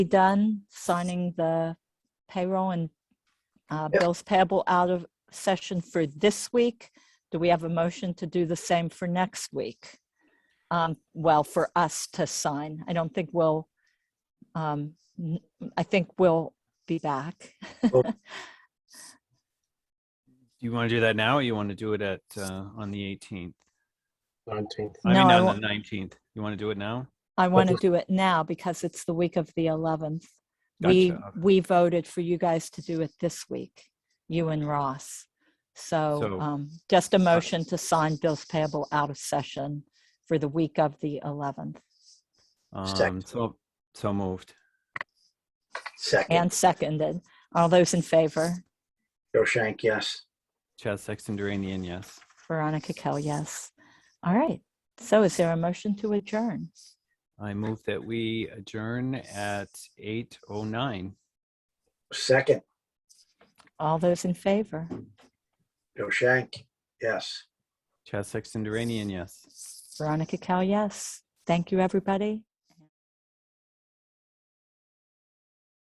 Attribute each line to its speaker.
Speaker 1: be done signing the payroll and uh,
Speaker 2: Yep.
Speaker 1: bills payable out of session for this week. Do we have a motion to do the same for next week? Um, Well, for us to sign. I don't think we'll, um, n- I think we'll be back.
Speaker 3: Do you want to do that now or you want to do it at, uh, on the 18th?
Speaker 2: Nineteenth.
Speaker 3: I
Speaker 1: No,
Speaker 3: mean,
Speaker 1: I
Speaker 3: on the 19th. You want to do it now?
Speaker 1: I want to
Speaker 2: was-
Speaker 1: do it now because it's the week of the 11th. We,
Speaker 3: Gotcha, okay.
Speaker 1: we voted for you guys to do it this week, you and Ross. So
Speaker 3: So-
Speaker 1: um, just a motion to sign bills payable out of session for the week of the 11th
Speaker 3: Um,
Speaker 2: Second.
Speaker 3: so, so moved.
Speaker 2: Second,
Speaker 1: and seconded. All those in favor?
Speaker 2: Joe Shank, yes.
Speaker 3: Chad Sexton Duranian, yes.
Speaker 1: Veronica Kell, yes. All right. So is there a motion to adjourn?
Speaker 3: I move that we adjourn at 8:09.
Speaker 2: Second,
Speaker 1: All those in favor?
Speaker 2: Joe Shank, yes.
Speaker 3: Chad Sexton Duranian, yes.
Speaker 1: Veronica Kell, yes. Thank you, everybody.